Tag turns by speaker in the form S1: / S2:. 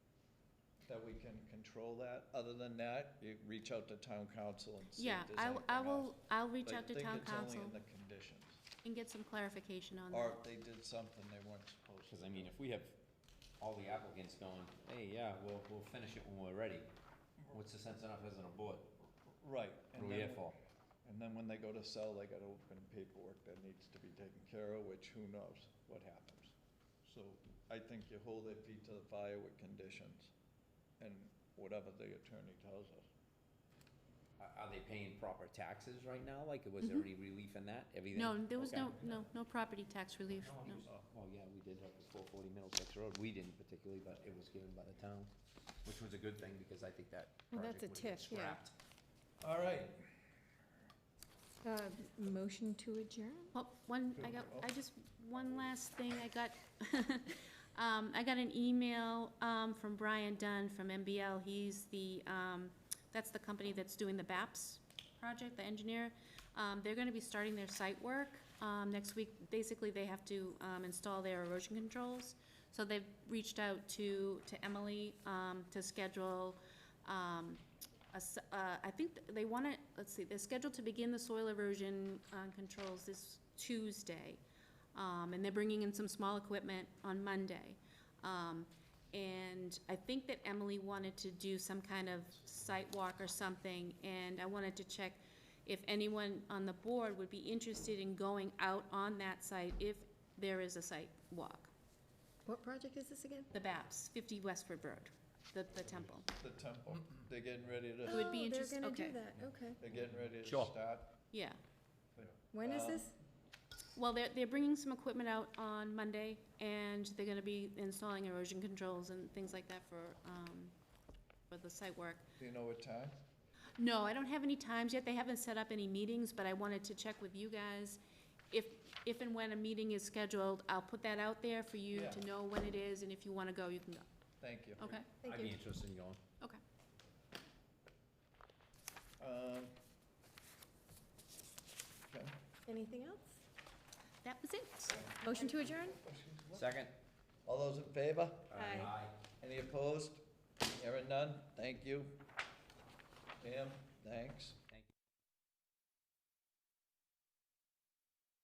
S1: that we can control that. Other than that, you reach out to town council and see
S2: Yeah,
S1: if there's
S2: I,
S1: anything
S2: I
S1: else.
S2: will, I'll reach
S1: But
S2: out to town
S1: I think it's
S2: council
S1: only in the conditions,
S2: and get some clarification on
S1: or
S2: that.
S1: if they did something they weren't supposed to.
S3: Cause I mean, if we have all the applicants going, hey, yeah, we'll, we'll finish it when we're ready, what's the sense of not as an board?
S1: Right.
S3: What
S1: and
S3: are we
S1: then
S3: here
S1: when-
S3: for?
S1: And then when they go to sell, they gotta open paperwork that needs to be taken care of, which who knows what happens. So I think you hold their feet to the fire with conditions and whatever the attorney tells us.
S3: Are, are they paying proper taxes right now? Like, was there any relief in that? Everything?
S2: No, there was no,
S3: Okay.
S2: no, no property tax relief, no.
S3: Well, yeah, we did have the four forty Middlesex Road. We didn't particularly, but it was given by the town, which was a good thing because I think that
S4: Well,
S3: project would
S4: that's a
S3: have been
S4: TIF, yeah.
S3: scrapped.
S1: All right,
S4: Uh, Motion to adjourn?
S2: Well, Oh, one, I got, I just, one last thing, I got, um, I got an email, um, from Brian Dunn from MBL, he's the, um, that's the company that's doing the BAPS project, the engineer. Um, they're gonna be starting their site work, um, next week, basically, they have to, um, install their erosion controls. So they've reached out to, to Emily, um, to schedule, um, a s- uh, I think th- they want to, let's see, they're scheduled to begin the soil erosion uh, controls this Tuesday. Um, And they're bringing in some small equipment on Monday. Um, And I think that Emily wanted to do some kind of site walk or something, and I wanted to check if anyone on the board would be interested in going out on that site if there is a site walk.
S4: What project is this again?
S2: The BAPS, 50 Westford Road, the, the temple.
S1: the temple, they're getting ready
S2: It
S1: to,
S2: would be interest-
S4: Oh, they're
S2: okay.
S4: gonna do that, okay.
S1: they're getting ready to
S3: Sure.
S1: start.
S2: Yeah.
S4: When is
S1: Um,
S4: this?
S2: Well, they're, they're bringing some equipment out on Monday, and they're gonna be installing erosion controls and things like that for, um, for the site work.
S1: Do you know what time?
S2: No, I don't have any times yet, they haven't set up any meetings, but I wanted to check with you guys. If, if and when a meeting is scheduled, I'll put that out there for you to
S1: Yeah.
S2: know when it is, and if you wanna go, you can go,
S1: Thank you.
S2: okay?
S4: Thank
S3: I'd be
S4: you.
S3: interested in going.
S2: Okay.
S1: Um, okay.
S4: Anything else?
S2: That was it.
S4: Motion to adjourn?
S3: Second?
S1: All those in favor?
S4: Aye.
S1: Any opposed? Hearing none, thank you. Pam, thanks.